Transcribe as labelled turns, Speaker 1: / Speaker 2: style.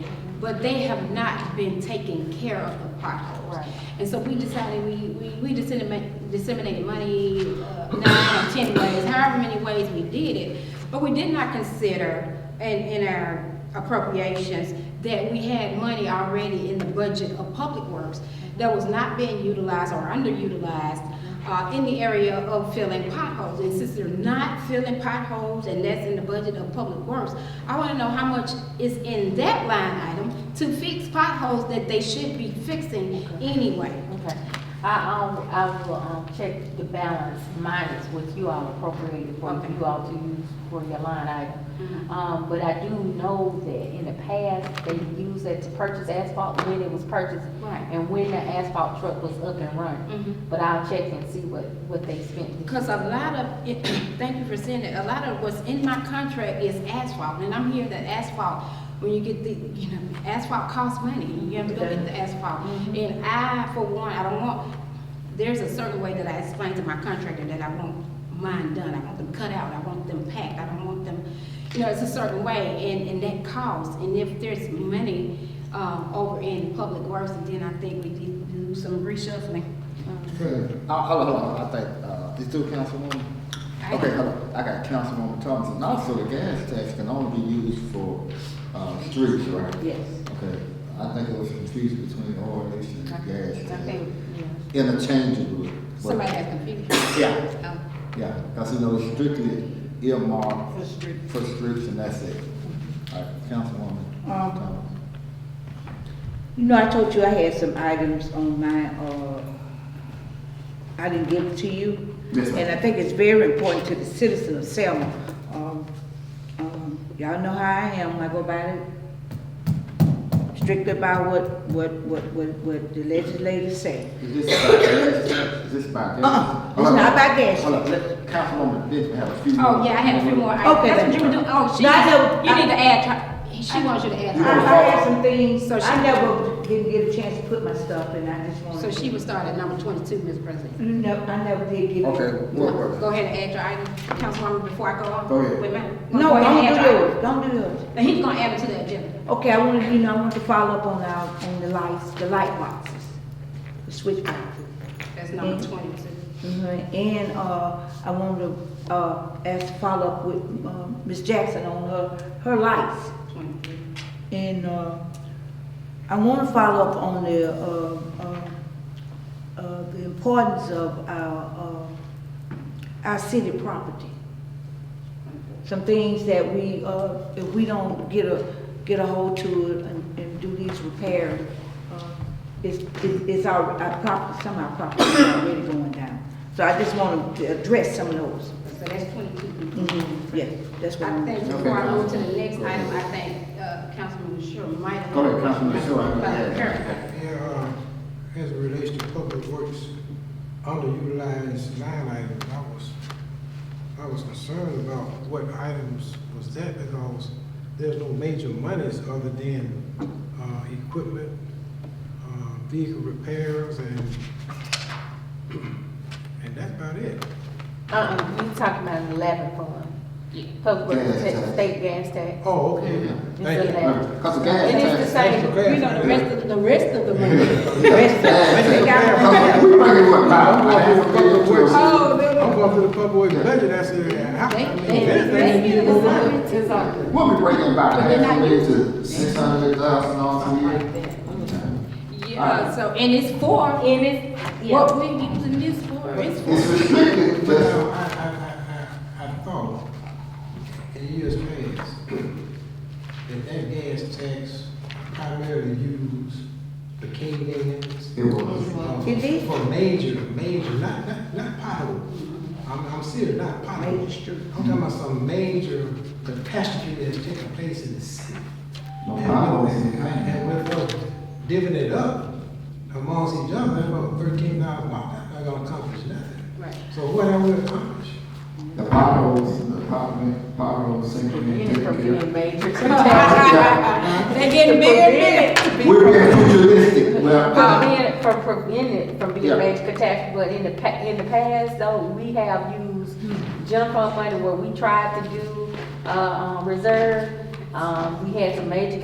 Speaker 1: but they have not been taking care of the potholes.
Speaker 2: Right.
Speaker 1: And so we decided, we, we, we disseminated, disseminated money, uh, nine or ten ways, however many ways we did it. But we did not consider in, in our appropriations that we had money already in the budget of public works that was not being utilized or underutilized uh, in the area of filling potholes. And since they're not filling potholes and that's in the budget of public works, I wanna know how much is in that line item to fix potholes that they should be fixing anyway.
Speaker 2: Okay, I, um, I will, um, check the balance minus what you all appropriated for
Speaker 1: Okay.
Speaker 2: you all to use for your line item. Um, but I do know that in the past, they used that to purchase asphalt when it was purchased.
Speaker 1: Right.
Speaker 2: And when the asphalt truck was up and
Speaker 1: Mhm.
Speaker 2: running. But I'll check and see what, what they spent.
Speaker 1: Because a lot of, it- thank you for saying that, a lot of what's in my contract is asphalt, and I'm hearing that asphalt, when you get the, you know, asphalt costs money, you have to go get the asphalt. And I, for one, I don't want, there's a certain way that I explain to my contractor that I want mine done, I want them cut out, I want them packed, I don't want them, you know, it's a certain way, and, and that costs, and if there's money, um, over in public works, then I think we need to do some reshuffling. Um,
Speaker 3: Uh, Hold on, hold on, I think, uh, it's still Councilwoman?
Speaker 1: I-
Speaker 3: Okay, hold on, I got Councilwoman Thompson, also the gas tax can only be used for, uh, streets, right?
Speaker 2: Yes.
Speaker 3: Okay, I think it was confusion between ordinance and
Speaker 2: I
Speaker 3: gas
Speaker 2: I
Speaker 3: tax.
Speaker 2: think, yeah.
Speaker 3: Interchangeable. but-
Speaker 1: Somebody has confusion.
Speaker 3: Yeah,
Speaker 1: Oh.
Speaker 3: yeah, because it was strictly earmarked for streets and that's it. All right, Councilwoman
Speaker 4: Um,
Speaker 3: Thompson.
Speaker 4: You know, I told you I had some items on my, uh, I didn't give it to you.
Speaker 3: Yes, ma'am.
Speaker 4: And I think it's very important to the citizen of Selma. Um, um, Y'all know how I am, I go about it strictly by what, what, what, what, what the legislators say.
Speaker 3: Is this about gas tax? Is this about gas?
Speaker 4: Uh-uh, it's
Speaker 3: Hold on.
Speaker 4: not about gas
Speaker 3: Hold on, let Councilwoman Benson have a few more.
Speaker 1: Oh, yeah, I had a few more. I-
Speaker 4: Okay,
Speaker 1: That's what
Speaker 4: then.
Speaker 1: you were doing. Oh, she,
Speaker 4: No, I know-
Speaker 1: you
Speaker 4: I-
Speaker 1: need to add, her- she wants you to add.
Speaker 4: I,
Speaker 1: her.
Speaker 4: I had some things,
Speaker 1: So she-
Speaker 4: I never didn't get a chance to put my stuff in, I just wanted.
Speaker 1: So she would start at number twenty-two, Ms. President.
Speaker 4: No, I never did give it.
Speaker 3: Okay, what,
Speaker 1: Go ahead and add your item, Councilwoman, before I go on.
Speaker 3: Go ahead.
Speaker 1: Wait a minute.
Speaker 4: No,
Speaker 1: Go ahead
Speaker 4: don't
Speaker 1: and
Speaker 4: do
Speaker 1: add your item.
Speaker 4: yours, don't do yours.
Speaker 1: Now, he's gonna add it to the agenda.
Speaker 4: Okay, I wanted, you know, I want to follow up on our, on the lights, the light boxes, the switch boxes.
Speaker 1: That's number
Speaker 4: Mhm.
Speaker 1: twenty-two.
Speaker 4: Mhm, And, uh, I want to, uh, ask, to follow up with, um, Ms. Jackson on her, her lights.
Speaker 1: 23.
Speaker 4: And, uh, I want to follow up on the, uh, uh, uh, the importance of our, uh, our city property. Some things that we, uh, if we don't get a, get a hold to it and, and do these repairs, uh, it's, it's it's our, our property, some of our property is already going down. So I just want to address some of those.
Speaker 1: So that's twenty-two.
Speaker 4: Mhm, Yeah, that's what
Speaker 1: I
Speaker 4: I'm.
Speaker 1: think
Speaker 3: Okay.
Speaker 1: before I move to the next
Speaker 3: Go
Speaker 1: item,
Speaker 3: ahead.
Speaker 1: I think, uh, Councilman Shure might.
Speaker 3: Go ahead, Councilman Shure, I'm gonna
Speaker 1: But
Speaker 3: add.
Speaker 1: clarify.
Speaker 5: Yeah, uh, as it relates to public works, underutilized line items, I was, I was concerned about what items was that because there's no major monies other than, uh, equipment, uh, vehicle repairs and, and that's about it.
Speaker 2: Uh-uh, you talking about eleven fund, public,
Speaker 3: Gas tax.
Speaker 2: works, state gas tax.
Speaker 5: Oh, okay, thank you.
Speaker 3: Because the gas
Speaker 2: It
Speaker 3: tax.
Speaker 2: is the same,
Speaker 1: You know, the rest of, the rest of the money.
Speaker 4: Rest of-
Speaker 3: Because We bring it what, about, I have to go to a-
Speaker 1: Oh, no, no.
Speaker 5: I'm going through the public works budget, I said, how,
Speaker 1: They,
Speaker 5: I mean,
Speaker 1: they,
Speaker 5: this thing
Speaker 1: they
Speaker 5: needs to
Speaker 1: give
Speaker 5: go
Speaker 1: us
Speaker 5: on.
Speaker 1: money. Exactly.
Speaker 3: We'll be bringing about
Speaker 1: But they're
Speaker 3: half
Speaker 1: not
Speaker 3: a million to
Speaker 1: using-
Speaker 3: six hundred thousand dollars a year.
Speaker 1: Yeah, so, and it's for, and it's,
Speaker 2: Yeah.
Speaker 1: what we using this for, it's for.
Speaker 3: It's restricted,
Speaker 5: But now,
Speaker 3: but
Speaker 5: I, I, I, I, I thought in years past, that that gas tax primarily used the K-Dans.
Speaker 3: it was.
Speaker 4: It did.
Speaker 5: For major, major, not, not, not potholes. I'm, I'm serious, not potholes. I'm talking about some major catastrophe that's taking place in the city.
Speaker 3: No
Speaker 5: And-
Speaker 3: potholes.
Speaker 5: And we're divvying it up amongst each other, that's about thirteen thousand dollars, that's not gonna accomplish nothing.
Speaker 1: Right.
Speaker 5: So what have we accomplished?
Speaker 3: The potholes, the pot- potholes sinking.
Speaker 2: Any for being major.
Speaker 1: They getting bigger and bigger.
Speaker 3: We're being futuristic, well,
Speaker 2: For
Speaker 3: uh,
Speaker 2: being, for preventing, from being
Speaker 3: Yeah.
Speaker 2: a major catastrophe, but in the pa, in the past though, we have used jump fund money where we tried to do, uh, um, reserve. Um, we had some major